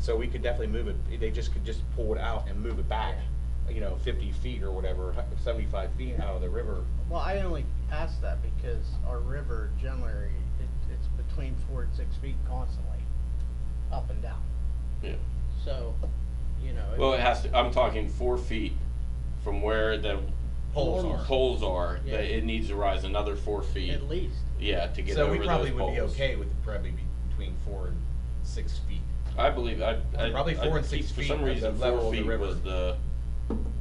So we could definitely move it, they just could just pull it out and move it back, you know, fifty feet or whatever, hu- seventy-five feet out of the river. Well, I only asked that because our river generally, it, it's between four and six feet constantly, up and down. Yeah. So, you know. Well, it has to, I'm talking four feet from where the Poles Normal. are. poles are, Yeah. that it needs to rise another four feet, At least. yeah, to get So over we those probably would be poles. okay with probably be between four and six feet. I believe, I, I. Probably I four and keep- six For feet some at the reason, level four of the feet river. was the,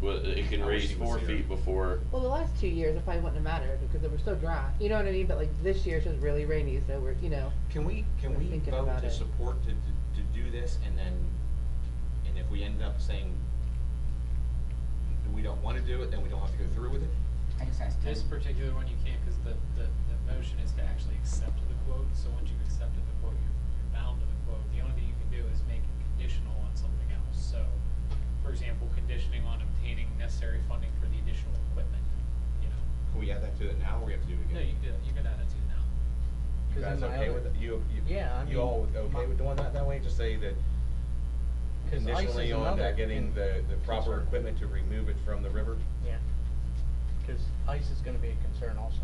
was, it can I wish raise he was four here. feet before, Well, the last two years it probably wouldn't have mattered because they were so dry. You know what I mean? But like this year it's just really rainy, so we're you know. Can we, can We're we thinking vote about to it. support to, to do this and then, and if we end up saying we don't wanna do it, then we don't have to go through with it? I just asked This him. particular one, you can't, because the, the, the motion is to actually accept the quote, so once you've accepted the quote, you're, you're bound to the quote. The only thing you can do is make it conditional on something else, so, for example, conditioning on obtaining necessary funding for the additional equipment, you know? Can we add that to it now, or we have to do it again? No, you could, you could add it to now. You 'Cause guys in my okay other- with, it? you, you, Yeah, I you mean, all my- okay with doing that that way? Just say that 'Cause ice conditionally is on uh, another getting con- the, the proper concern. equipment to remove it from the river? Yeah. Cause ice is gonna be a concern also.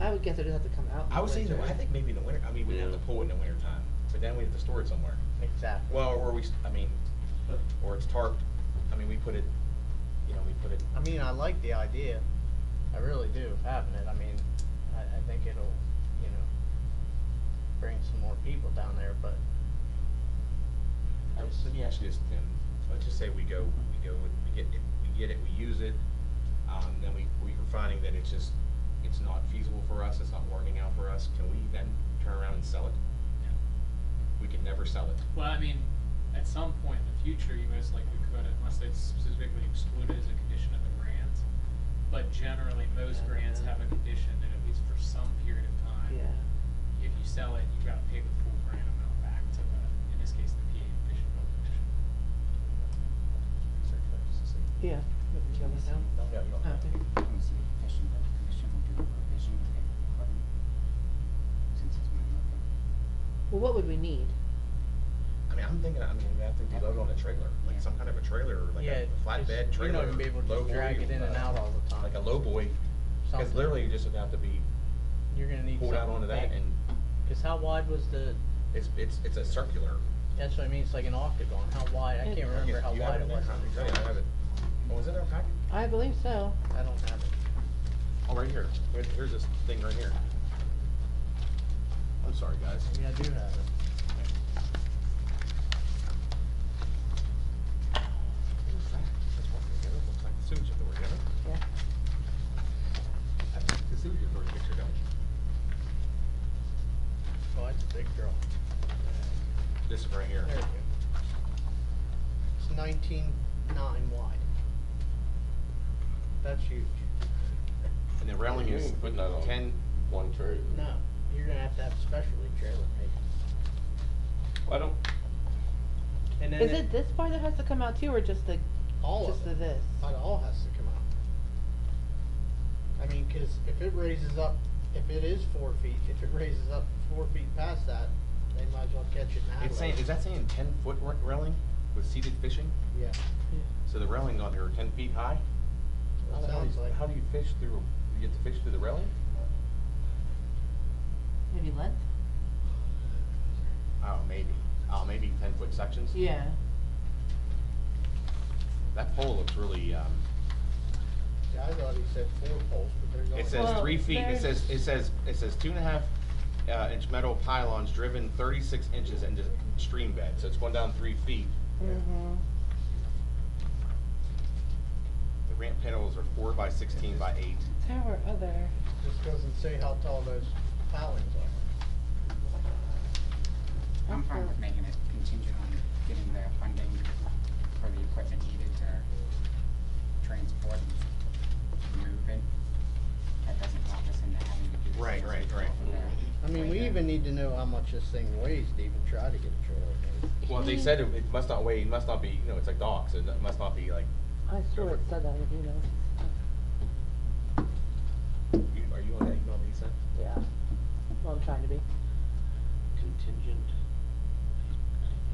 I would guess it would have to come out. in I would say, in the- winter. I think maybe in the winter, I mean, we'd have to Yeah. pull it in the winter time, but then we have to store it somewhere. Exactly. Well, or we, s- I mean, or it's tarped, I mean, we put it, you know, we put it, I mean, I like the idea. I really do of having it. I mean, I, I think it'll, you know, bring some more people down there, but I was- let me ask you this, Tim, let's just say we go, we go, with- we get it, we get it, we use it, um, then we, we are finding that it's just, it's not feasible for us, it's not working out for us, can we then turn around and sell it? No. We can never sell it. Well, I mean, at some point in the future, you most likely could, unless they specifically exclude it as a condition of the grant. But generally, most grants have a condition that at least for some period of time, Yeah. if you sell it, you've gotta pay the full grant amount back to the, in this case, the PA Fish and Boat Commission. Research that, just to see. Yeah. You want me to go now? No, you don't Oh, have to. okay. Let me see if the Fish and Boat Commission will do a revision of their equipment, since it's my mother. Well, what would we need? I mean, I'm thinking, I mean, we have to load on a trailer, Yeah. like some kind of a trailer, or like yeah, a flatbed just- trailer. You're not gonna be able to low just boy drag or, it in and uh, out all the time. Like a low boy, cause Something. literally you just would have to be You're gonna need pulled out something onto that big. and Cause how wide was the, it's, it's, it's a circular. that's what I mean, it's like an octagon, how wide, I It- can't remember You- how you have wide it in was. my copy, don't you? I have it, oh, is it our packet? I believe so. I don't have it. Oh, right here, Wait, here's this thing right here. I'm sorry, guys. Maybe I do have it. Who's that? That's one thing. It looks like the sewage authority, doesn't it? Yeah. That's the sewage authority picture, don't you? Oh, that's a big girl. This one right here. There we go. It's nineteen nine wide. That's huge. And the railing You is ain't putting that on. ten, one trailer. No, you're gonna have to have a specialty trailer made. I don't, And then Is it this part that has to come out too, or just the All just of the it. this? It all has to come out. I mean, cause if it raises up, if it is four feet, if it raises up four feet past that, they might as well catch it now. it's saying, is that saying ten foot ra- railing with seated fishing? Yeah, So the railings on here are ten feet high? that How do sounds you- like. How do you fish through, you get to fish through the railing? Maybe length. Oh, maybe, oh, maybe ten foot sections? Yeah. That pole looks really, um, Yeah, I thought he said four poles, but there's only. it says Well, three feet, it says, it there's- says, it says two and a half, uh, inch metal pylons driven thirty-six inches into stream bed, so it's going down three feet. Mm-hmm. The ramp panels are four by sixteen by eight. Tower other. Just doesn't say how tall those pilings are. I'm fine with making it contingent on getting the funding for the equipment needed to transport and move it. That doesn't lock us into having to do this. Right, right, right. I mean, we even need to know how much this thing weighs to even try to get a trailer made. Well, they said it, it must not weigh, it must not be, you know, it's like docks, it must not be like, I swear it said that in the email. you, are you on that email that he sent? Yeah. Well, I'm trying to be. contingent